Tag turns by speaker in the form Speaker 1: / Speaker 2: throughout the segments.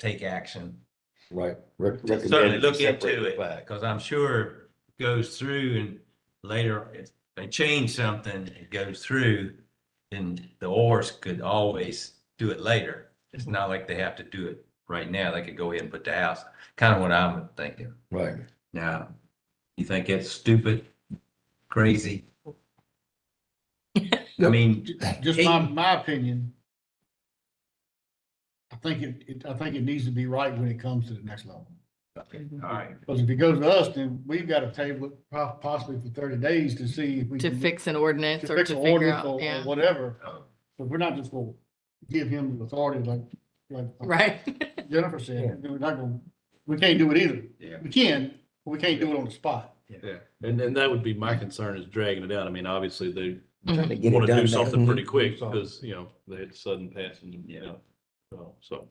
Speaker 1: take action.
Speaker 2: Right. Rec-
Speaker 1: Certainly
Speaker 2: recommend
Speaker 1: look
Speaker 2: separate
Speaker 1: into it,
Speaker 2: flag.
Speaker 1: because I'm sure it goes through and later if they change something, it goes through. And the ors could always do it later. It's not like they have to do it right now. They could go ahead and put the house, kind of what I'm thinking.
Speaker 2: Right.
Speaker 1: Now, you think it's stupid, crazy? I mean,
Speaker 3: Just my, my opinion. I think it, it, I think it needs to be right when it comes to the next level.
Speaker 1: all right,
Speaker 3: Because if it goes to us, then we've got to table it po- possibly for thirty days to see if we.
Speaker 4: to
Speaker 3: can-
Speaker 4: fix an
Speaker 3: Mm-hmm. to
Speaker 4: ordinance or to
Speaker 3: fix an
Speaker 4: figure
Speaker 3: ordinance
Speaker 4: out,
Speaker 3: or- or
Speaker 4: yeah,
Speaker 3: whatever.
Speaker 1: oh,
Speaker 3: But we're not just gonna give him the authority like, like
Speaker 4: right.
Speaker 3: Jennifer said, we're not gonna, we can't do it either.
Speaker 1: Yeah.
Speaker 3: We can, but we can't do it on the spot.
Speaker 5: And, and that would be my concern is dragging it out. I mean, obviously they
Speaker 4: Mhm.
Speaker 2: Get it
Speaker 5: want to
Speaker 2: done Mm-hmm.
Speaker 5: do
Speaker 2: now.
Speaker 5: something pretty quick
Speaker 3: Mhm.
Speaker 5: because, you know, they had sudden passing, you know, so- so.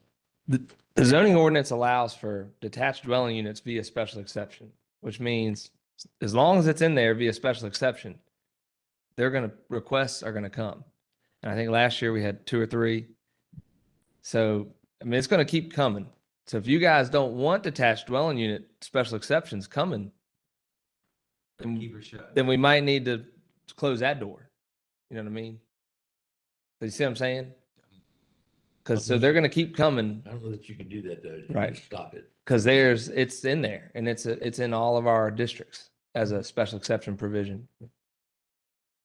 Speaker 6: The zoning ordinance allows for detached dwelling units via special exception, which means as long as it's in there via special exception, they're gonna, requests are gonna come. And I think last year we had two or three. So, I mean, it's gonna keep coming. So if you guys don't want detached dwelling unit special exceptions coming, then,
Speaker 1: keep her shut.
Speaker 6: then we might need to close that door. You know what I mean? You see what I'm saying? Cause so they're gonna keep coming.
Speaker 2: I don't know that you can do that though. You can
Speaker 6: Right.
Speaker 2: Stop it.
Speaker 6: Because there's, it's in there and it's, a- it's in all of our districts as a special exception provision.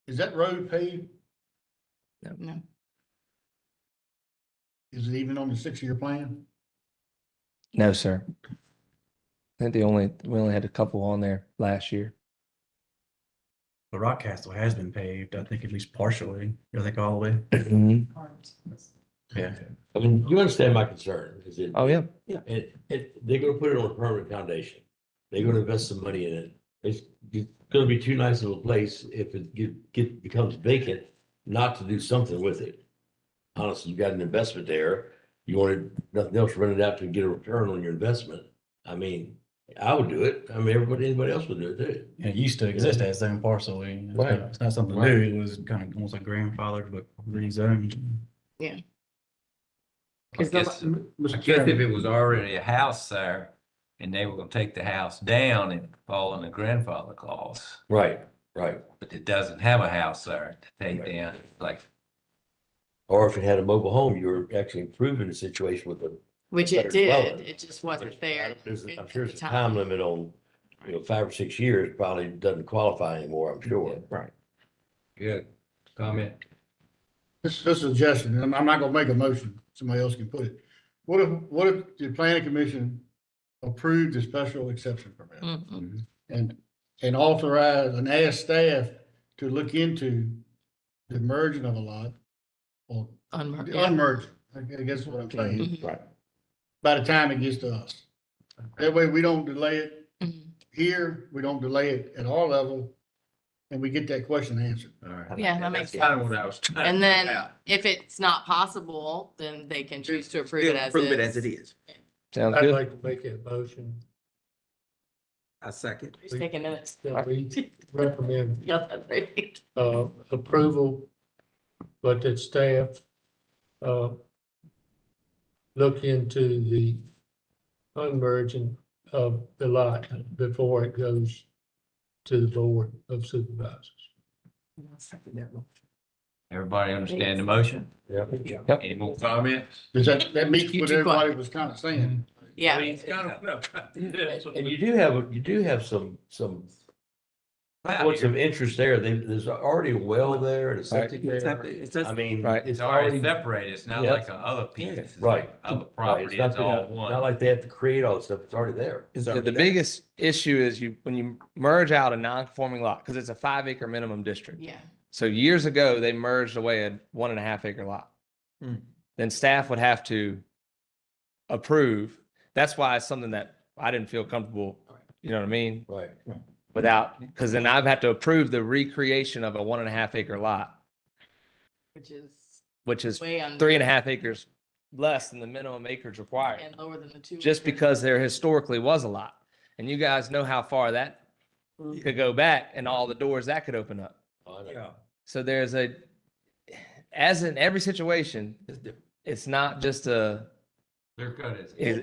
Speaker 3: Is that road paved?
Speaker 4: No.
Speaker 3: Is it even on the six-year plan?
Speaker 6: No, sir. I think the only, we only had a couple on there last year.
Speaker 7: But Rockcastle has been paved, I think at least partially, I think all the way.
Speaker 1: Mm-hmm.
Speaker 5: Yeah.
Speaker 2: I mean, you understand my concern, is it?
Speaker 6: Oh, yeah.
Speaker 2: And, and they're gonna put it on a permanent foundation. They're gonna invest some money in it. It's, it's gonna be too nice of a place if it get, get, becomes vacant, not to do something with it. Honestly, you got an investment there. You wanted nothing else, run it out to get a return on your investment. I mean, I would do it. I mean, everybody, anybody else would do it too.
Speaker 7: And it used to exist as its own parcel. and it's
Speaker 2: Right.
Speaker 7: not- It's not something new, it was kind of almost like grandfathered, but rezoned.
Speaker 1: I
Speaker 4: Is the-
Speaker 1: guess- I guess if it was already a house there and they were gonna take the house down and fall in the grandfather clause,
Speaker 2: Right, right.
Speaker 1: but it doesn't have a house there to take
Speaker 2: Right.
Speaker 1: down, like,
Speaker 2: Or if it had a mobile home, you were actually improving the situation with them.
Speaker 4: Which
Speaker 2: Better
Speaker 4: it did,
Speaker 2: dwelling.
Speaker 4: it just wasn't
Speaker 2: There's-
Speaker 4: there.
Speaker 2: There's,
Speaker 4: at-
Speaker 2: I'm
Speaker 4: at
Speaker 2: sure
Speaker 4: the
Speaker 2: it's a time
Speaker 4: time.
Speaker 2: limit on, you know, five or six years probably doesn't qualify anymore, I'm sure.
Speaker 6: Right.
Speaker 1: good comment.
Speaker 3: This, this is a suggestion, and I'm not gonna make a motion, somebody else can put it. What if, what if the planning commission approved the special exception permit?
Speaker 4: Mhm.
Speaker 3: And, and authorize and ask staff to look into the merging of a lot or
Speaker 4: Unmarked,
Speaker 3: the
Speaker 4: yeah.
Speaker 3: unmerging, I guess is what I'm saying,
Speaker 4: Mhm.
Speaker 3: by the time it gets to us. That way we don't delay it
Speaker 4: Mhm.
Speaker 3: here, we don't delay it at our level, and we get that question answered.
Speaker 1: All right.
Speaker 4: Yeah, that makes
Speaker 1: Kind of
Speaker 4: sense.
Speaker 1: what I was trying.
Speaker 4: And
Speaker 1: to figure
Speaker 4: then
Speaker 1: out.
Speaker 4: if it's not possible, then they can choose to approve it as
Speaker 8: Prove it as
Speaker 4: is.
Speaker 8: it is.
Speaker 6: Sounds good.
Speaker 9: like to make a motion
Speaker 8: I second.
Speaker 4: Who's taking minutes?
Speaker 9: that we recommend
Speaker 4: Yeah, that's right.
Speaker 9: uh, approval, but that staff uh, look into the unmerging of the lot before it goes to the Board of Supervisors.
Speaker 1: Everybody understand the motion?
Speaker 6: Yep.
Speaker 1: Any more comments?
Speaker 3: Does that, that meets
Speaker 4: You
Speaker 3: what
Speaker 4: too quiet. Mm-hmm.
Speaker 3: everybody was kind of saying?
Speaker 1: I
Speaker 4: Yeah,
Speaker 1: mean, it's kind of- no.
Speaker 2: And you do have, you do have some, some points of interest there. They, there's already a well there and a septic
Speaker 8: It's not-
Speaker 2: there.
Speaker 8: it's
Speaker 2: I
Speaker 8: just-
Speaker 2: mean,
Speaker 6: Right.
Speaker 2: it's
Speaker 1: It's already
Speaker 2: already, right.
Speaker 1: separated. It's not
Speaker 2: Yeah.
Speaker 1: like a other piece. It's
Speaker 2: Right.
Speaker 1: like Other
Speaker 2: It's
Speaker 1: property,
Speaker 2: not,
Speaker 1: it's uh, all
Speaker 2: not
Speaker 1: one.
Speaker 2: like they have to create all this stuff. It's already there.
Speaker 6: Is The the biggest issue is you, when you merge out a non-conforming lot, because it's a five acre minimum district.
Speaker 4: yeah.
Speaker 6: So years ago, they merged away a one and a half acre lot.
Speaker 7: Mm.
Speaker 6: Then staff would have to approve. That's why it's something that I didn't feel comfortable, you know what I mean?
Speaker 2: Right.
Speaker 6: Without, because then I've had to approve the recreation of a one and a half acre lot,
Speaker 4: Which is
Speaker 6: which is
Speaker 4: way under.
Speaker 6: three and a half acres less than the minimum acreage required,
Speaker 4: And lower than the two.
Speaker 6: just
Speaker 4: acre.
Speaker 6: because there historically was a lot. And you guys know how far that could go back and all the doors that could open up.
Speaker 2: I know.
Speaker 8: Yeah.
Speaker 6: So there's a, as in every situation, it's not just a
Speaker 10: Clear cut is.
Speaker 1: It-